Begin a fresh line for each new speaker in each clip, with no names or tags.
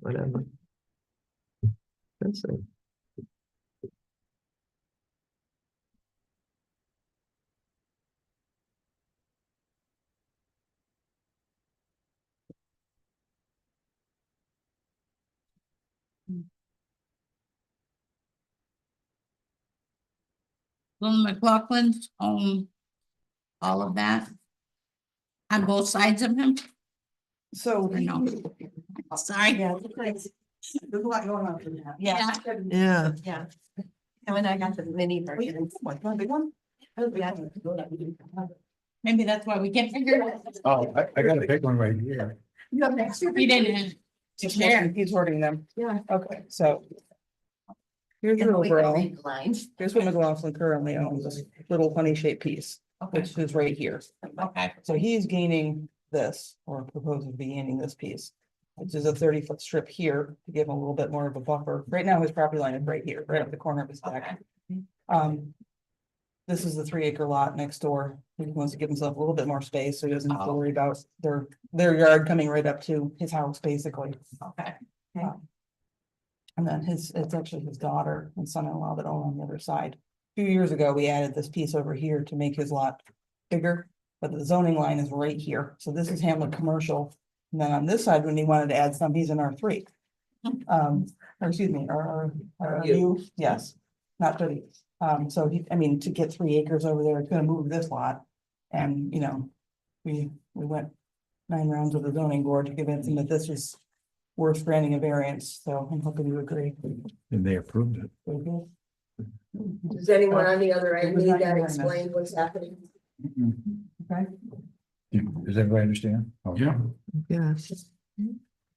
whatever. That's it.
Lynn McLaughlin owned all of that. On both sides of him,
So.
or no? Sorry,
Yeah, it's nice. There's a lot going on from that.
Yeah.
Yeah,
Yeah. And when I got the mini version. Big one? You
maybe that's why we can't figure it out.
Oh, I, I got a big one right here.
have an extra.
We didn't.
He's
Share.
hoarding- He's hoarding them.
Yeah.
Okay, so here's an overall. Here's what McLaughlin currently owns, this little honey shaped piece,
Okay,
which is right here.
okay,
So he's gaining this or proposing to be gaining this piece. Which is a thirty foot strip here to give him a little bit more of a buffer. Right now, his property line is right here, right up the corner of his
okay.
back. Um. This is the three acre lot next door. He wants to give himself a little bit more space, so he doesn't have to
Oh.
worry about their, their yard coming right up to his house, basically.
Okay.
Okay.
Um, And then his, it's actually his daughter and son-in-law that own on the other side. A Few years ago, we added this piece over here to make his lot bigger, but the zoning line is right here. So this is Hamlet Commercial. And then on this side, when he wanted to add some, he's in R three. Um, or excuse me, or, or you, yes, not thirty. Um, so he, I mean, to get three acres over there, it's gonna move this lot. And, you know, we, we went nine rounds with the zoning board to convince him that this was worth granting a variance, so I'm hoping you agree.
And they approved it.
Does anyone on the other end
It was not
need that
unanimous.
explained what's happening?
Okay,
Do- Does everybody understand? Oh. Yeah.
yeah.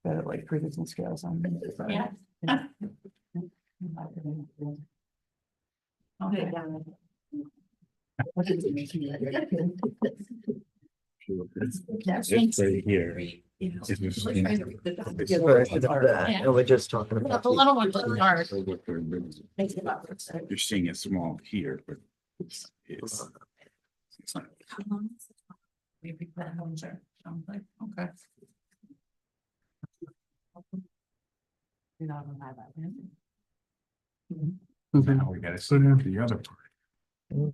better like figures and scales on. this side.
Yeah. Okay.
It's right here. It was in-
It's worse than that, And we're just talking
Well,
about.
The little ones are ours.
You're seeing it small here, but it's, it's. it's not-
Maybe that homes are, sounds like, okay.
Now we gotta sit down to the other part.
Well,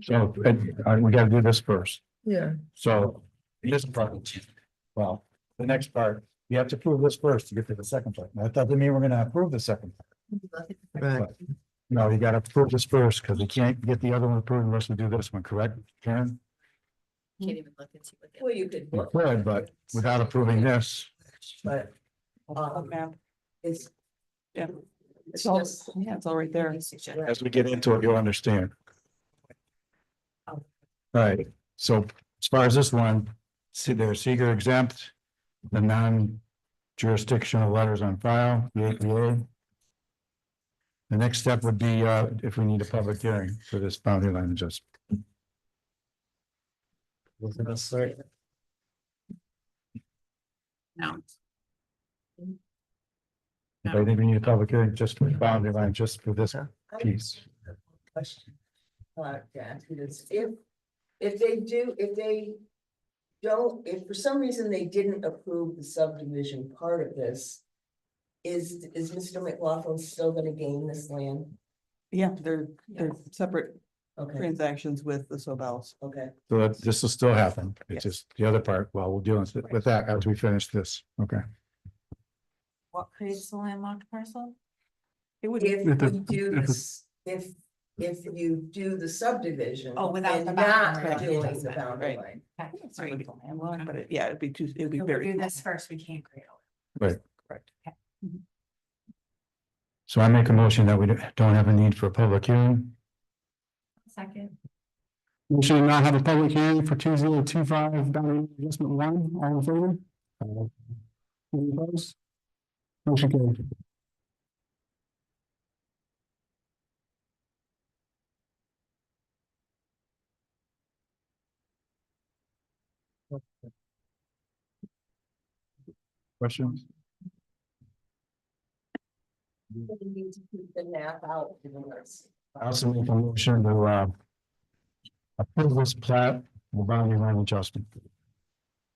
So, uh, we gotta do this first.
Yeah,
So this part, well, the next part, you have to approve this first to get to the second part. That doesn't mean we're gonna approve the second. part,
right.
but, No, you gotta approve this first because we can't get the other one approved unless we do this one, correct, Karen?
Well, you could.
We could, but without approving this.
But,
Uh,
um,
map.
it's.
Yeah.
It's
It's all,
just-
yeah, it's all right there.
As we get into it, you'll understand. All right, so as far as this one, see there, seeker exempt, the non-jurisdictional letters on file, the APA. The next step would be, uh, if we need a public hearing for this boundary line adjustment.
Wasn't a sort.
no.
If I think we need a public hearing just for the boundary line, just for this piece.
Question. Uh, to ask you this, if, if they do, if they don't, if for some reason they didn't approve the subdivision part of this. Is, is Mr. McLaughlin still gonna gain this land?
Yeah, they're, they're separate
Okay,
transactions with the Sobels.
okay.
So that, this will still happen. It's just the other part, well, we'll deal with with that after we finish this, okay?
What creates the landlocked parcel?
It would,
If
If the-
we do
if the-
this, if, if you do the subdivision.
Oh, without
and
the boundary
Not
line.
doing the
Right.
boundary line.
it's a legal landlocked, but it- yeah, it'd be too, it'd be
If
very.
we do
small.
this first, we can't create. all-
So I make a motion that we don't have a need for a public hearing.
Second.
We should not have a public hearing for two zero two five boundary adjustment one, all in favor? Uh, Any opposed? Motion carried. Questions?
We need to keep the map out. for the rest.
I also make a motion to, uh, approve this plat, the boundary line adjustment.